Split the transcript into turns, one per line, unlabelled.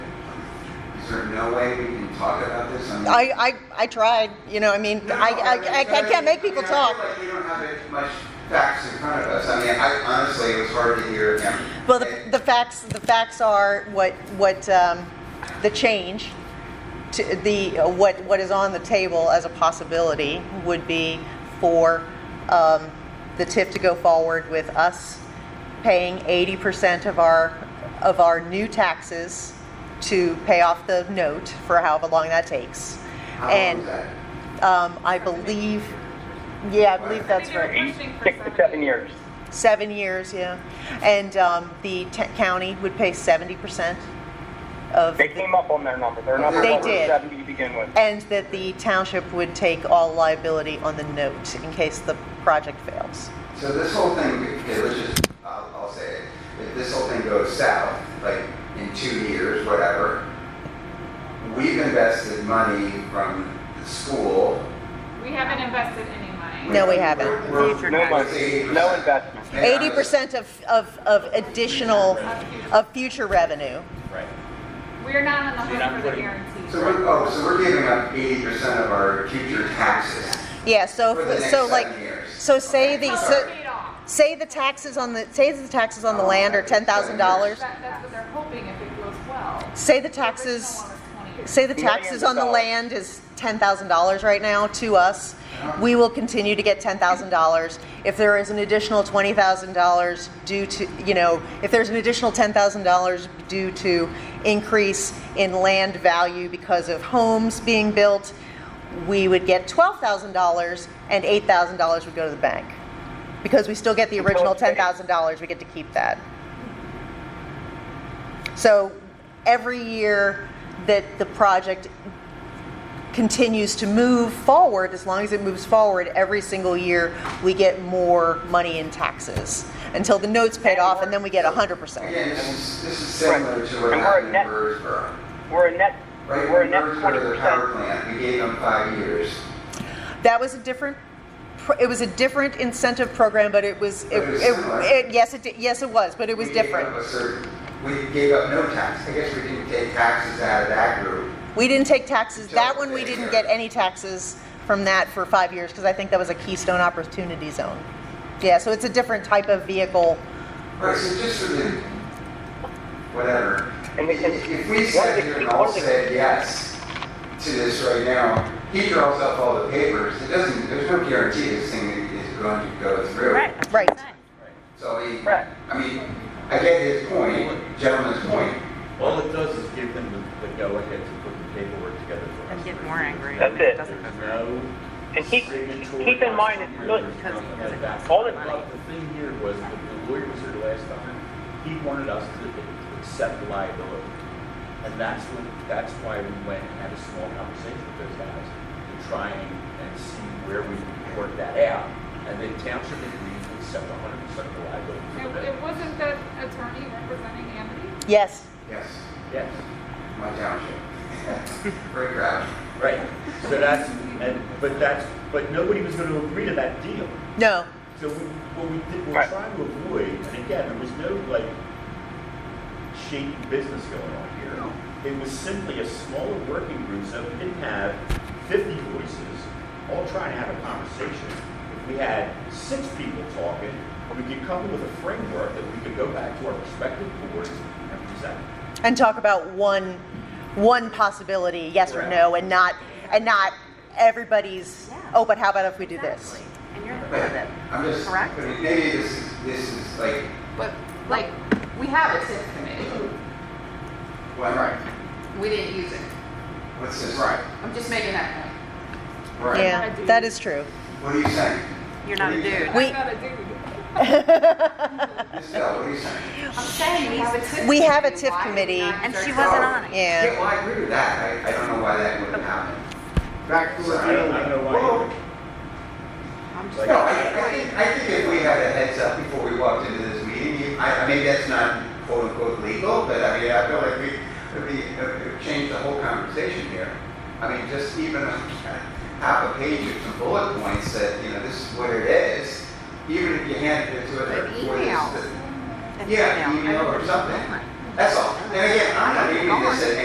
there no way we can talk about this? mean-
I, I, I tried, you know, I mean,
No,
I, I,
mean,
I, I can't make people
I feel
talk.
like we don't have it much facts in front of us. I mean, I honestly, it was hard to hear him.
Well, the,
And-
the facts, the facts are what, what, um, the change to the, what, what is on the table as a possibility would be for, um, the TIF to go forward with us paying eighty percent of our, of our new taxes to pay off the note for however long that takes.
How long
And,
was that?
um, I believe, yeah, I believe that's right.
Eight,
Six to seven years.
Seven years, yeah. And um, the t- county would pay 70% of,
They came up on their number. Their number
They
was
did.
seventy to begin with.
and that the township would take all liability on the note in case the project fails.
So this whole thing, okay, let's just, I'll, I'll say it. If this whole thing goes south, like in two years, whatever, we've invested money from the school.
We haven't invested any money.
No, we haven't.
We're- we're-
No money, no
80%.
investment.
And I'm-
80% of, of, of additional, of future revenue.
Right.
We're not on
You're
the
not
hook for the
putting-
guarantee.
So we're, oh, so we're giving up eighty percent of our future taxes.
Yeah, so,
For the next
so like,
seven years.
so say the,
It's
so,
paid off.
say the taxes on the, say the taxes on the
Oh,
land are
okay, seven years.
$10,000.
That- That's what they're hoping if it goes well.
Say the taxes,
The original one was 20 years.
Say the taxes on the land is ten thousand dollars right now to us. We will continue to get ten thousand dollars. If there is an additional twenty thousand dollars due to, you know, if there's an additional ten thousand dollars due to increase in land value because of homes being built, we would get twelve thousand dollars and eight thousand dollars would go to the bank. Because we still get the original ten thousand dollars, we get to keep that. So every year that the project continues to move forward, as long as it moves forward, every single year we get more money in taxes until the note's paid off and then we get 100%.
Again, this is, this is similar to what
And we're
happened in
net-
Birdsboro.
We're a net,
Right,
we're a
when
net twenty
Birdsboro, the power
percent.
plant, we gave them five years.
That was a different pr- it was a different incentive program, but it was it,
But it was
it,
similar.
it- yes it did, yes it was, but it was
We gave up
different.
a certain- We gave up no tax. I guess we didn't take taxes out of that group.
We didn't take taxes. That
Just
one we didn't
there.
get any taxes from that for five years because I think that was a Keystone Opportunity Zone. Yeah, so it's a different type of vehicle.
Right, so just for the, whatever.
And we can-
If we sat here and all said yes to this right now, he draws up all the papers. It doesn't, there's no guarantee this thing is going to go through.
Right.
So I mean,
Right.
I mean, I get his point, gentleman's point.
All it does is give them the, the go-ahead to put the paperwork together for us.
And get more angry.
That's it.
Doesn't go
There's
through.
no
And keep-
premature
keep in mind it's
here,
good
there's
because
nothing
he doesn't
like that.
have all the
But
money.
The thing here was, that the lawyer was here last time, he wanted us to accept liability. And that's when, that's why we went and had a small conversation with those guys, to try and, and see where we could work that out. And the township agreed to accept hundred percent of the liability. for the
It
building.
it wasn't that attorney representing Amity?
Yes.
Yes,
Yes.
my township. Very proud.
Right, so that's, and, but that's, but nobody was gonna agree to that deal.
No.
So we, what we did, we're
Right.
trying to avoid, and again, there was no like shaky business going on here. It was simply a smaller working group, so we didn't have fifty voices, all trying to have a conversation. If we had six people talking, we could come up with a framework that we could go back to our respective boards and present.
And talk about one one possibility, yes or no, and not and not everybody's oh but how about if we do this?
Exactly. And you're the one
But
that,
I'm just,
correct?
but maybe this is, this is like,
But like, we have a TIF committee.
well, right,
We didn't use it.
what's this? Right.
I'm just making that point.
Right.
Yeah, that is true.
What are you saying?
you're not a dude.
We-
I'm not a dude.
Ms. Bell, what are you saying?
I'm saying we have a TIF.
We have a TIF
Why did
committee.
not
And she
start-
wasn't on it.
Yeah.
Yeah, well, I agree with that. I, I don't know why that would have happened.
Back to
So
the
I don't, I
deal.
don't know why.
I'm just
Like-
No,
saying-
I, I think, I think if we had a heads up before we walked into this meeting, you- I, I mean, that's not quote unquote legal, but I mean, I feel like we, we, we changed the whole conversation here. I mean, just even half a page of some bullet points that, you know, this is what it is, even if you handed it to
An
a. before this-
email.
Yeah, email or something. That's all. And again, I'm not even gonna say